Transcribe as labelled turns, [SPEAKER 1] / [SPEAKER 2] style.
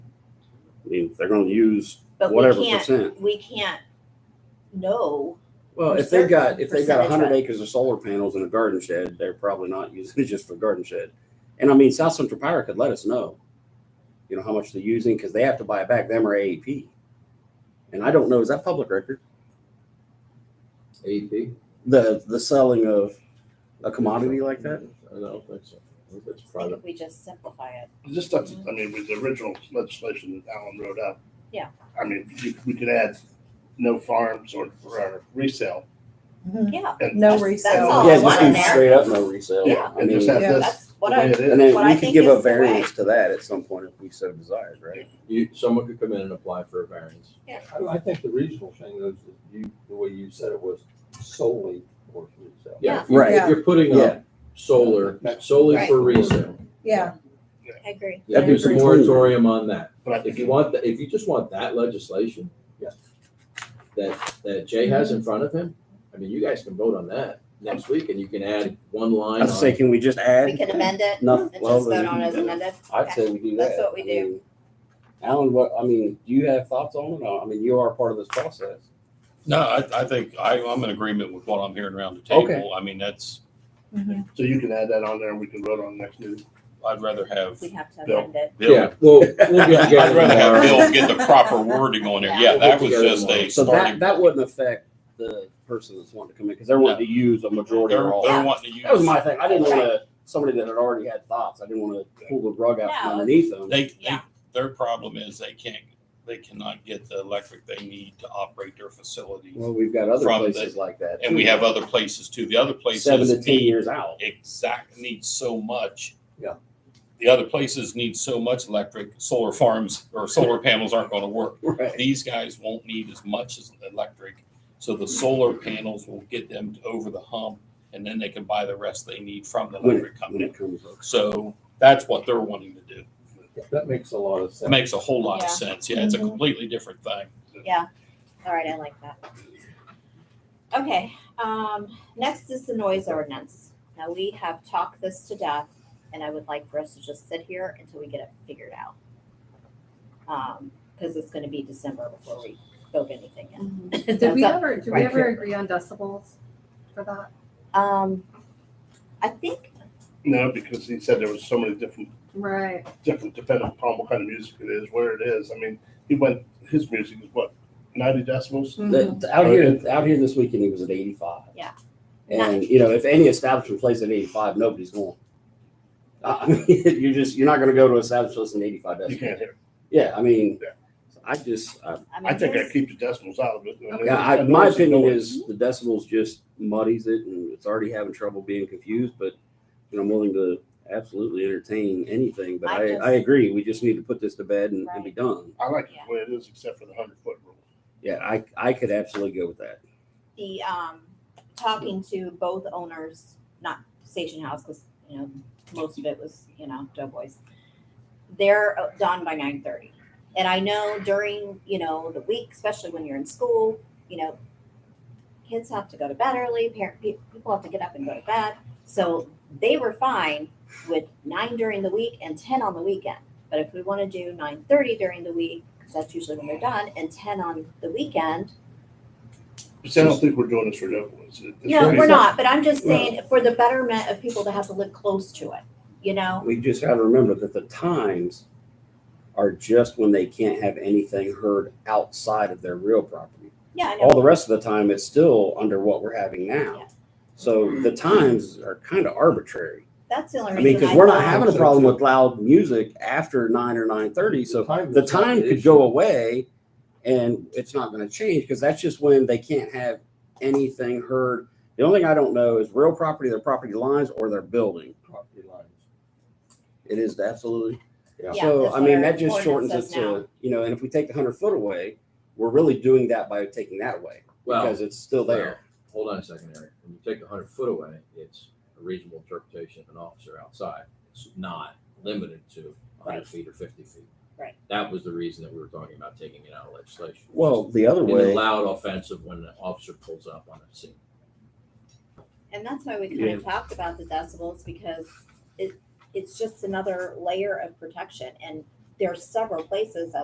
[SPEAKER 1] I mean, they're gonna use
[SPEAKER 2] But we
[SPEAKER 1] whatever
[SPEAKER 2] can't,
[SPEAKER 1] percent.
[SPEAKER 2] we can't know.
[SPEAKER 1] Well,
[SPEAKER 2] Or
[SPEAKER 1] if they've got, if they've got a
[SPEAKER 2] percentage,
[SPEAKER 1] hundred
[SPEAKER 2] right.
[SPEAKER 1] acres of solar panels in a garden shed, they're probably not using it just for garden shed. And I mean, South Central Power could let us know, you know, how much they're using, because they have to buy it back them or AEP. And I don't know, is that public record?
[SPEAKER 3] AEP?
[SPEAKER 1] The, the selling of a commodity like that?
[SPEAKER 3] I don't think so. I think it's
[SPEAKER 2] I think
[SPEAKER 3] private.
[SPEAKER 2] if we just simplify it.
[SPEAKER 4] This stuff, I mean, with the original legislation that Alan wrote up.
[SPEAKER 2] Yeah.
[SPEAKER 4] I mean, we- we could add no farms or, or resale.
[SPEAKER 2] Yeah,
[SPEAKER 4] and-
[SPEAKER 5] No
[SPEAKER 4] and-
[SPEAKER 2] That's
[SPEAKER 5] resale.
[SPEAKER 2] all
[SPEAKER 1] Yeah,
[SPEAKER 2] I want
[SPEAKER 1] just do
[SPEAKER 2] in there.
[SPEAKER 1] straight up no resale.
[SPEAKER 4] Yeah,
[SPEAKER 1] I
[SPEAKER 4] and just
[SPEAKER 1] mean,
[SPEAKER 4] have
[SPEAKER 5] Yeah.
[SPEAKER 4] this.
[SPEAKER 2] That's
[SPEAKER 4] the
[SPEAKER 2] what
[SPEAKER 4] way
[SPEAKER 2] I,
[SPEAKER 1] and
[SPEAKER 4] it is.
[SPEAKER 1] then
[SPEAKER 2] What I
[SPEAKER 1] we could
[SPEAKER 2] think
[SPEAKER 1] give
[SPEAKER 2] is
[SPEAKER 1] a
[SPEAKER 2] the way.
[SPEAKER 1] variance to that at some point if we so desired, right?
[SPEAKER 3] You, someone could come in and apply for a variance.
[SPEAKER 2] Yeah.
[SPEAKER 6] I I think the reasonable thing is that you, the way you said it was solely for resale.
[SPEAKER 3] Yeah, if you-
[SPEAKER 1] Right.
[SPEAKER 3] If you're putting
[SPEAKER 1] Yeah.
[SPEAKER 3] up solar solely for
[SPEAKER 6] Right.
[SPEAKER 3] resale,
[SPEAKER 5] Yeah,
[SPEAKER 2] I agree.
[SPEAKER 1] That'd be
[SPEAKER 3] there's a
[SPEAKER 1] pretty
[SPEAKER 3] moratorium on that.
[SPEAKER 4] But I
[SPEAKER 3] If
[SPEAKER 4] think
[SPEAKER 3] you want, the- if you just want that legislation.
[SPEAKER 6] Yeah.
[SPEAKER 3] That, that Jay has in front of him, I mean, you guys can vote on that next week and you can add one line
[SPEAKER 1] I'd say,
[SPEAKER 3] on.
[SPEAKER 1] can we just
[SPEAKER 2] We
[SPEAKER 1] add?
[SPEAKER 2] can amend it and
[SPEAKER 1] No,
[SPEAKER 2] just
[SPEAKER 1] well,
[SPEAKER 2] vote on it as amended.
[SPEAKER 1] I'd say we do that.
[SPEAKER 2] That's what we
[SPEAKER 1] I mean, Alan, what, I mean, do you have thoughts on it? I mean, you are part of this process.
[SPEAKER 7] No, I, I think I, I'm in agreement with what I'm hearing around the
[SPEAKER 1] Okay.
[SPEAKER 7] table. I mean, that's,
[SPEAKER 4] So you can add that on there and we can vote on next meeting.
[SPEAKER 7] I'd rather have
[SPEAKER 2] We have to
[SPEAKER 4] Bill.
[SPEAKER 2] amend it.
[SPEAKER 3] Yeah, well,
[SPEAKER 7] Bill.
[SPEAKER 3] we'll get together.
[SPEAKER 7] I'd rather have
[SPEAKER 3] tomorrow.
[SPEAKER 7] Bill get the proper wording on there.
[SPEAKER 2] Yeah.
[SPEAKER 7] Yeah, that was just a
[SPEAKER 1] So that,
[SPEAKER 7] starting.
[SPEAKER 1] that wouldn't affect the person that's wanting to come in, because they're wanting to use a majority
[SPEAKER 7] They're,
[SPEAKER 1] or all.
[SPEAKER 7] they're wanting to
[SPEAKER 1] That was
[SPEAKER 7] use,
[SPEAKER 1] my thing. I didn't want to, somebody that had already had thoughts, I didn't want to pull the rug out from
[SPEAKER 2] No.
[SPEAKER 1] underneath them.
[SPEAKER 7] they, they,
[SPEAKER 2] Yeah.
[SPEAKER 7] their problem is they can't, they cannot get the electric they need to operate their facility.
[SPEAKER 1] Well, we've got other
[SPEAKER 7] From the-
[SPEAKER 1] places like that.
[SPEAKER 7] And we
[SPEAKER 1] too.
[SPEAKER 7] have other places too. The other
[SPEAKER 1] Seven to
[SPEAKER 7] places
[SPEAKER 1] ten
[SPEAKER 7] need,
[SPEAKER 1] years out.
[SPEAKER 7] exact, need so much.
[SPEAKER 1] Yeah.
[SPEAKER 7] The other places need so much electric, solar farms or solar panels aren't gonna work.
[SPEAKER 1] Right.
[SPEAKER 7] These guys won't need as much as electric, so the solar panels will get them over the hump, and then they can buy the rest they need from the
[SPEAKER 1] When
[SPEAKER 7] electric
[SPEAKER 1] it, when
[SPEAKER 7] company.
[SPEAKER 1] it comes up.
[SPEAKER 7] So that's what they're wanting to do.
[SPEAKER 6] That makes a lot of
[SPEAKER 7] It
[SPEAKER 6] sense.
[SPEAKER 7] makes a whole lot
[SPEAKER 2] Yeah.
[SPEAKER 7] of sense. Yeah, it's a
[SPEAKER 5] Mhm.
[SPEAKER 7] completely different thing.
[SPEAKER 2] All right, I like that. Okay, um, next is the noise ordinance. Now, we have talked this to death, and I would like for us to just sit here until we get it figured out. Um, because it's gonna be December before we vote anything in.
[SPEAKER 8] Mm-hmm. Did we
[SPEAKER 2] That's up-
[SPEAKER 8] ever, did we
[SPEAKER 2] right.
[SPEAKER 8] ever agree on decibels for that?
[SPEAKER 2] Um, I think,
[SPEAKER 4] No, because he said there was so many different,
[SPEAKER 8] Right.
[SPEAKER 4] different depending upon what kind of music it is, where it is. I mean, he went, his music is what, ninety decibels?
[SPEAKER 1] The- the- out here, out here this weekend, it was at eighty-five.
[SPEAKER 2] Mm-hmm. Yeah.
[SPEAKER 1] And, you know, if any establishment plays at eighty-five, nobody's going. I I mean, you're just, you're not gonna go to a establishment that's an eighty-five
[SPEAKER 4] You
[SPEAKER 1] decibel.
[SPEAKER 4] can't hear.
[SPEAKER 1] Yeah, I mean,
[SPEAKER 4] Yeah.
[SPEAKER 1] I just, I,
[SPEAKER 2] I
[SPEAKER 4] I
[SPEAKER 2] mean,
[SPEAKER 4] think I
[SPEAKER 2] his,
[SPEAKER 4] keep the decimals out of it.
[SPEAKER 8] Okay.
[SPEAKER 1] yeah, I, my
[SPEAKER 4] Otherwise, it's
[SPEAKER 1] opinion
[SPEAKER 4] noise.
[SPEAKER 1] is the decibels just muddies it and it's already having trouble being confused, but, you know, I'm willing to absolutely entertain anything, but
[SPEAKER 2] I
[SPEAKER 1] I,
[SPEAKER 2] just-
[SPEAKER 1] I agree, we just need to put this to bed and, and be done.
[SPEAKER 4] I like it the way it is, except for the hundred foot rule.
[SPEAKER 1] Yeah, I, I could absolutely go with that.
[SPEAKER 2] the, um, talking to both owners, not Station House, because, you know, most of it was, you know, Doughboys. They're uh, done by nine thirty. And I know during, you know, the week, especially when you're in school, you know, kids have to go to bed early, parent, pe- people have to get up and go to bed. So they were fine with nine during the week and ten on the weekend. But if we want to do nine thirty during the week, because that's usually when they're done, and ten on the weekend,
[SPEAKER 4] But see, I don't think we're doing this for no ones.
[SPEAKER 2] No,
[SPEAKER 4] It's-
[SPEAKER 2] we're not, but I'm just saying for the betterment of people that have to live close to it, you know?
[SPEAKER 1] We just gotta remember that the times are just when they can't have anything heard outside of their real property.
[SPEAKER 2] Yeah, I
[SPEAKER 1] All
[SPEAKER 2] know.
[SPEAKER 1] the rest of the time, it's still under what we're having
[SPEAKER 2] Yeah.
[SPEAKER 1] now. So the times are kind of arbitrary.
[SPEAKER 2] That's the only
[SPEAKER 1] I
[SPEAKER 2] reason.
[SPEAKER 1] mean, because we're not
[SPEAKER 2] thought-
[SPEAKER 1] having a problem with loud music after nine or nine thirty, so the time could go away and it's not gonna change, because that's just when they can't have anything heard. The only thing I don't know is real property, their property lines, or their building.
[SPEAKER 6] Property lines.
[SPEAKER 1] It is absolutely.
[SPEAKER 6] Yeah.
[SPEAKER 2] Yeah,
[SPEAKER 1] So,
[SPEAKER 2] that's
[SPEAKER 1] I mean,
[SPEAKER 2] what our
[SPEAKER 1] that just shortens
[SPEAKER 2] ordinance
[SPEAKER 1] it
[SPEAKER 2] says now.
[SPEAKER 1] to, you know, and if we take the hundred foot away, we're really doing that by taking that away,
[SPEAKER 3] Well,
[SPEAKER 1] because it's still
[SPEAKER 3] Well,
[SPEAKER 1] there.
[SPEAKER 3] Hold on a second, Eric. When you take a hundred foot away, it's a reasonable interpretation of an officer outside. It's not limited to
[SPEAKER 2] Right.
[SPEAKER 3] hundred feet or fifty feet.
[SPEAKER 2] Right.
[SPEAKER 3] That was the reason that we were talking about taking it out of legislation.
[SPEAKER 1] Well, the other
[SPEAKER 3] It
[SPEAKER 1] way,
[SPEAKER 3] allowed offensive when an officer pulls up on a scene.
[SPEAKER 2] And that's why we kind of talked about the decibels because it, it's just another layer of protection. And there are several places